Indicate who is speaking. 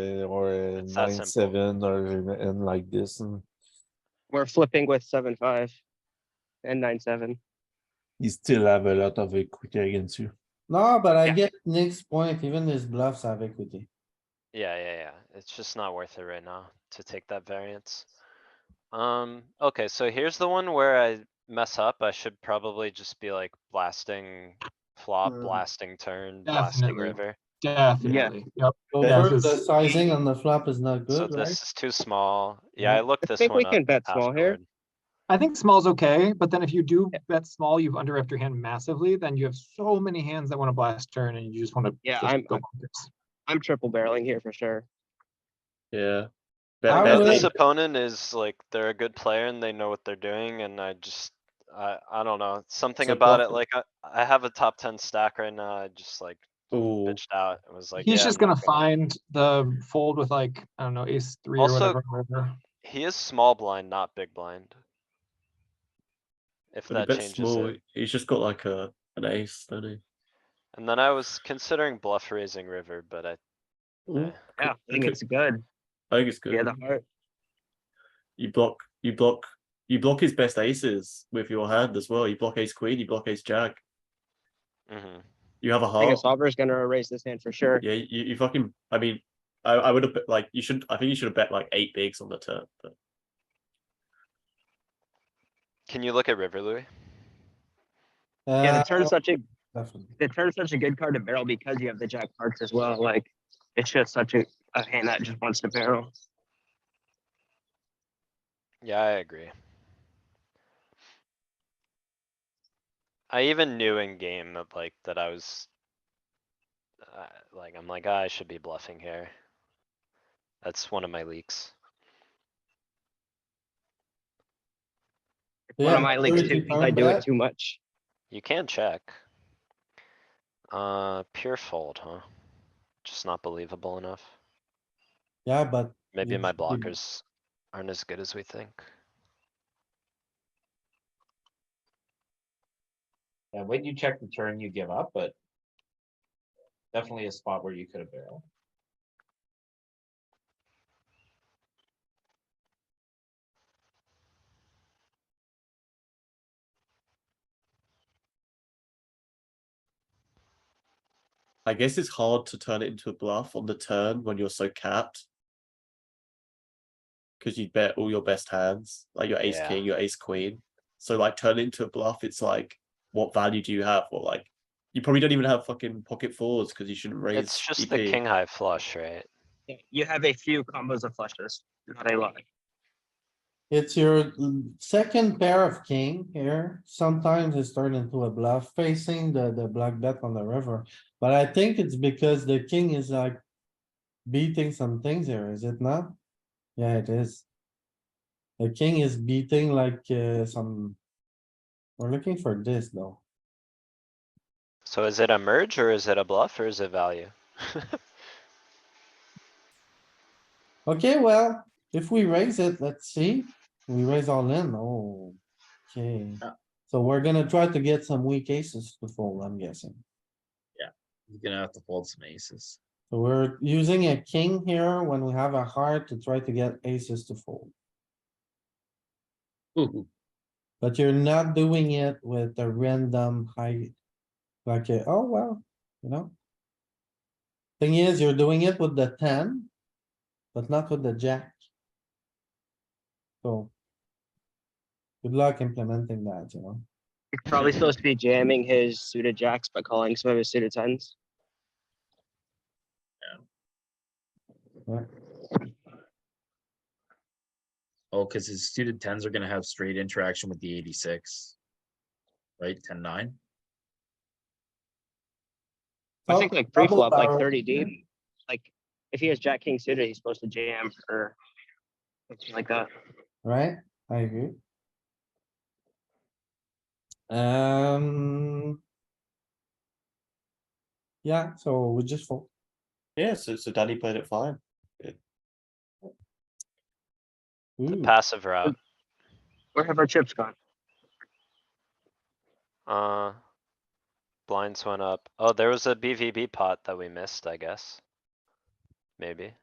Speaker 1: that
Speaker 2: uh, nine,
Speaker 1: simple.
Speaker 2: seven or in like this and
Speaker 3: We're flipping with seven, five and nine, seven.
Speaker 2: you still have a lot of equity against you.
Speaker 4: No, but I
Speaker 3: Yeah.
Speaker 4: get Nick's point, even his bluffs have equity.
Speaker 1: Yeah, yeah, yeah. It's just not worth it right now to take that variance. Um, okay, so here's the one where I mess up. I should probably just be like blasting flop,
Speaker 5: Mm.
Speaker 1: blasting turn, blasting
Speaker 5: Definitely.
Speaker 1: river.
Speaker 5: Definitely. Yep.
Speaker 4: So
Speaker 2: Yeah.
Speaker 4: first, the sizing on the flop is not
Speaker 1: So
Speaker 4: good, right?
Speaker 1: this is too small. Yeah,
Speaker 4: Yeah.
Speaker 1: I looked this
Speaker 3: think we
Speaker 1: one up
Speaker 3: can bet small here.
Speaker 1: afterward.
Speaker 5: I think small's okay, but then if you do bet small, you've underwrapped your hand massively, then you have so many hands that want to blast turn and you just want to.
Speaker 3: Yeah, I'm- I'm- I'm triple barreling here for sure.
Speaker 6: Yeah.
Speaker 4: I
Speaker 6: Bet,
Speaker 1: And
Speaker 4: would-
Speaker 6: bet,
Speaker 1: this
Speaker 6: big.
Speaker 1: opponent is like, they're a good player and they know what they're doing and I just, I, I don't know, something
Speaker 2: So
Speaker 1: about it,
Speaker 2: bluffing.
Speaker 1: like, I, I have a top ten stack right now. I just like
Speaker 2: Oh,
Speaker 1: bitched out. It was like.
Speaker 5: He's
Speaker 1: yeah,
Speaker 5: just
Speaker 1: I'm
Speaker 5: gonna
Speaker 1: not
Speaker 5: find the fold with like, I don't know, ace three or
Speaker 1: Also-
Speaker 5: whatever. and whatever.
Speaker 1: He is small blind, not big blind.
Speaker 6: but
Speaker 1: If
Speaker 6: he
Speaker 1: that
Speaker 6: bets
Speaker 1: changes
Speaker 6: small.
Speaker 1: it.
Speaker 6: He's just got like a an ace, don't he?
Speaker 1: And then I was considering bluff raising river, but I,
Speaker 6: Ooh,
Speaker 1: eh,
Speaker 3: Yeah, I think
Speaker 6: Okay.
Speaker 3: it's good.
Speaker 6: I think it's good.
Speaker 3: Yeah, the heart.
Speaker 6: You block, you block, you block his best aces with your hand as well. You block ace queen, you block ace jack.
Speaker 1: mhm.
Speaker 6: You have a
Speaker 3: I think a
Speaker 6: heart.
Speaker 3: solver's gonna erase this hand for sure.
Speaker 6: Yeah, you, you fucking. I mean, I, I would have like you should. I think you should have bet like eight bigs on the turn. But
Speaker 1: Can you look at river, Louis?
Speaker 3: Yeah,
Speaker 4: Uh,
Speaker 3: the turn's such a,
Speaker 4: definitely.
Speaker 3: the turn's such a good card to barrel because you have the jack of hearts as well. Like, it's just such a, a hand that just wants to barrel.
Speaker 1: Yeah, I agree. I even knew in game that like, that I was. Uh, like, I'm like, "Ah, I should be bluffing here. That's one of my leaks.
Speaker 3: One
Speaker 4: Yeah,
Speaker 3: of my
Speaker 4: so
Speaker 3: leaks
Speaker 4: if you
Speaker 3: too, 'cause I
Speaker 4: turn
Speaker 3: do it
Speaker 4: back-
Speaker 3: too much.
Speaker 1: You can check. Uh, pure fold, huh? Just not believable enough.
Speaker 4: Yeah, but
Speaker 1: Maybe
Speaker 4: Yeah,
Speaker 1: my
Speaker 4: just give me-
Speaker 1: blockers aren't as good as we think.
Speaker 7: Yeah, when you check the turn, you give up, but definitely a spot where you could have barreled.
Speaker 6: I guess it's hard to turn it into a bluff on the turn when you're so capped. Because you bet all your best hands, like your ace
Speaker 1: Yeah.
Speaker 6: king, your ace queen. So like turn it into a bluff, it's like, what value do you have? Or like, you probably don't even have fucking pocket fours because you shouldn't raise. E
Speaker 1: It's just the
Speaker 6: EP.
Speaker 1: king high flush, right?
Speaker 3: Yeah, You have a few combos of flushes, not a lot.
Speaker 4: It's your mm, second pair of king here. Sometimes it's turned into a bluff facing the, the black bet on the river. But I think it's because the king is like beating some things here, is it not? Yeah, it is. The king is beating like uh, some. We're looking for this though.
Speaker 1: So is it a merge or is it a bluff or is it value?
Speaker 4: Okay, well, if we raise it, let's see. We raise all in, oh, okay. So we're gonna try to get some weak aces to fold, I'm guessing.
Speaker 7: He's gonna have to fold some aces.
Speaker 4: So We're using a king here when we have a heart to try to get aces to fold,
Speaker 7: Ooh,
Speaker 4: but you're not doing it with a random high. Like, a, oh, well, you know? Thing is, you're doing it with the ten, but not with the jack. So. Good luck implementing that, you know?
Speaker 3: He's probably supposed to be jamming his suited jacks, but calling some of his suited tens.
Speaker 7: oh, cuz his suited tens are gonna have straight interaction with the eighty-six. Right, ten, nine?
Speaker 3: I
Speaker 4: Oh,
Speaker 3: think like
Speaker 4: double
Speaker 3: pre-flop, like
Speaker 4: barrel.
Speaker 3: thirty deep, like if he has jack king suited, he's supposed to jam or something like that.
Speaker 4: Right, I agree. Um. Yeah, so we just fold.
Speaker 6: Yeah, so, so Danny played it fine.
Speaker 1: The
Speaker 4: Ooh,
Speaker 6: Hmm.
Speaker 1: passive route,
Speaker 3: Where have our chips gone?
Speaker 1: uh. Blinds went up. Oh, there was a BVB pot that we missed, I guess. Maybe.